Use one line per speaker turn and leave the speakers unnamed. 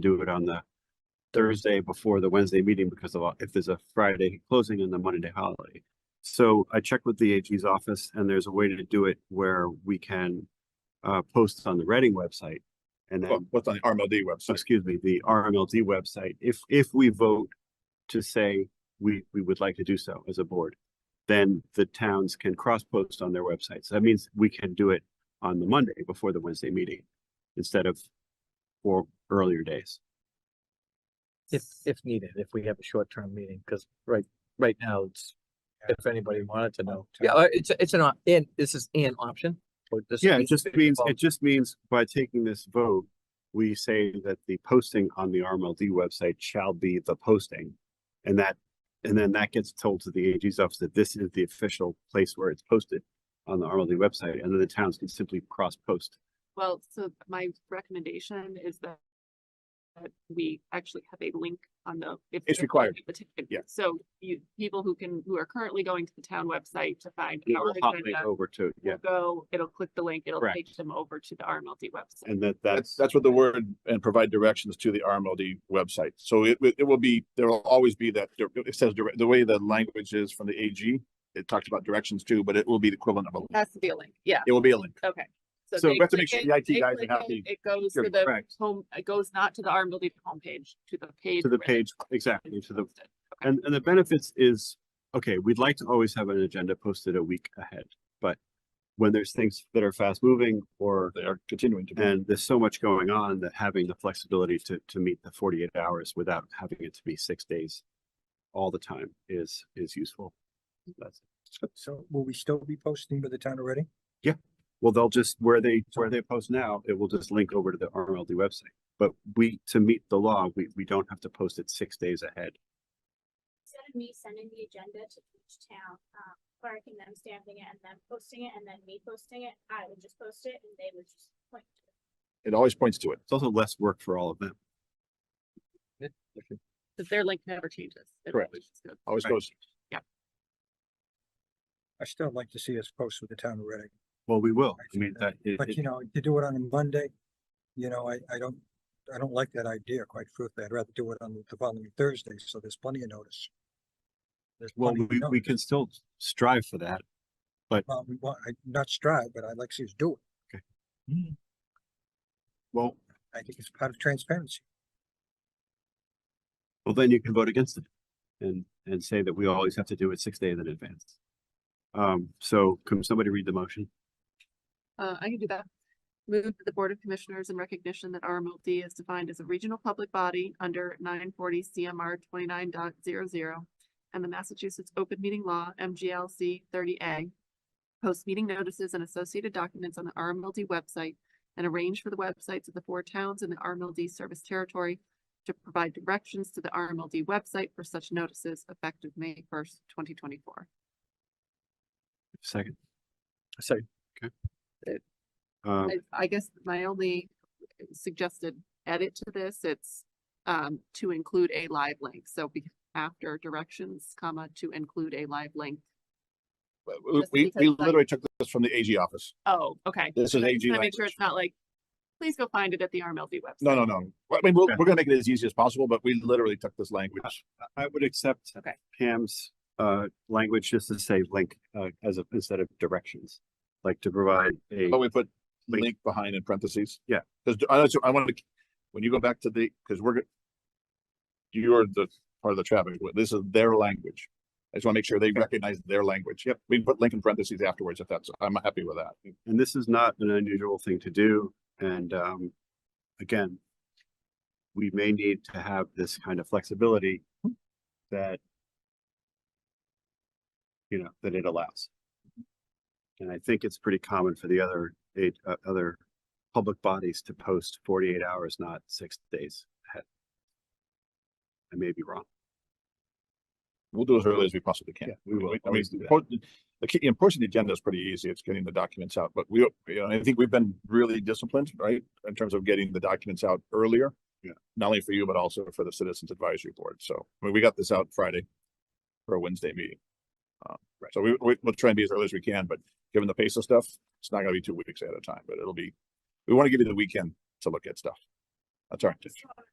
do it on the Thursday before the Wednesday meeting because of, if there's a Friday closing and the Monday holiday. So I checked with the AG's office and there's a way to do it where we can uh, post on the Reading website. And
Well,
then,
what's on the RMLD website?
excuse me, the RMLD website, if, if we vote to say we, we would like to do so as a board, then the towns can cross-post on their websites. That means we can do it on the Monday before the Wednesday meeting instead of four earlier days.
If, if needed, if we have a short-term meeting, because right, right now, it's, if anybody wanted to know. Yeah, uh, it's, it's an, op- and this is an option. or this
Yeah, it
means
just
it's
means,
involved.
it just means by taking this vote, we say that the posting on the RMLD website shall be the posting. And that, and then that gets told to the AG's office that this is the official place where it's posted on the RMLD website, and then the towns can simply cross-post.
Well, so my recommendation is that that we actually have a link on the. if-
It's
if-
required.
if the t- if-
Yeah.
So you, people who can, who are currently going to the town website to find
It
our
will hot link
agenda,
over to, yeah,
will go, it'll click the link, it'll
Correct.
take them over to the RMLD website.
and that, that's,
That's, that's what the word and provide directions to the RMLD website. So it, it it will be, there will always be that, it says, direct- the way the language is from the AG, it talks about directions too, but it will be the equivalent of a, link.
Has to be a link, yeah,
it will be a link.
okay.
So
they
we have to make
click
sure the
it,
IT
they
guys are
click it,
happy.
It goes
Sure,
to the
correct.
home, it goes not to the RMLD homepage, to the page.
to the
where
page,
it's
exactly, to the,
posted.
and, and the benefits is, okay, we'd like to always have an agenda posted a week ahead, but when there's things that are fast-moving or
They are continuing
Mm-hmm.
to be.
And there's so much going on that having the flexibility to, to meet the forty-eight hours without having it to be six days all the time is, is useful. That's,
So will we still be posting with the town already?
well, they'll just, where they, where they post now, it will just link over to the RMLD website. But we, to meet the law, we, we don't have to post it six days ahead.
instead of me sending the agenda to each town, um, Clark and them stamping it and them posting it and then me posting it, I would just post it and they would just point to it.
It always points to it.
It's also less work for all of them.
Cause their link never changes. It
Correct.
always just goes.
Always
Right.
goes,
I still like to see us post with the town already,
Well, we will. I mean, that, it-
but
it-
you know, to do it on a Monday, you know, I, I don't, I don't like that idea quite truthfully. I'd rather do it on the following Thursday, so there's plenty of notice. There's
well,
plenty of
we, we
notice.
can still strive for that.
Well, we want, I, not strive, but I'd like to see us do it.
well,
I think it's part of transparency.
Well, then you can vote against it and, and say that we always have to do it six days in advance. Um, so can somebody read the motion?
Uh, I can do that. Move to the Board of Commissioners in recognition that RMLD is defined as a regional public body under nine forty CMR 29.00 and the Massachusetts Open Meeting Law, MGLC thirty A. Post meeting notices and associated documents on the RMLD website and arrange for the websites of the four towns in the RMLD service territory to provide directions to the RMLD website for such notices effective May first, twenty twenty-four.
Second.
Second.
Okay.
It-
Um,
I, I guess my only suggested edit to this, it's um, to include a live link. So be, after directions, comma, to include a live link.
we-
Just
we,
because,
we
like-
literally took this from the AG office.
Oh, okay.
This is
I just
AG
wanna make
language.
sure it's not like, please go find it at the RMLD website.
No, no, no. Well, I mean, we'll,
Yeah.
we're gonna make it as easy as possible, but we literally took this language.
I would accept
Okay.
Pam's, uh, language just to say link, uh, as a, instead of directions. Like to provide a,
But we put
Wait.
link behind in parentheses.
Yeah.
Cause I, also- I wanted to, when you go back to the, cause we're. go- You're the part of the traffic, but this is their language. I just wanna make sure they recognize their language. Yep. We can put link in parentheses afterwards if that's, I'm happy with that.
and this is not an unusual thing to do. And, um, again, we may need to have this kind of flexibility that you know, that it allows. And I think it's pretty common for the other, eight, uh, other public bodies to post forty-eight hours, not six days ahead. I may be wrong.
We'll do as early as we possibly can.
Yeah, we will
I mean,
always do that.
po- the key, and pushing the agenda is pretty easy. It's getting the documents out, but we, you know, I think we've been really disciplined, right? In terms of getting the documents out earlier.
Yeah.
Not only for you, but also for the Citizens Advisory Board. So, I mean, we got this out Friday for a Wednesday meeting. Um,
Right.
So we, we, we'll try and be as early as we can, but given the pace of stuff, it's not gonna be two weeks at a time, but it'll be, we want to give you the weekend to look at stuff. That's our intention.
So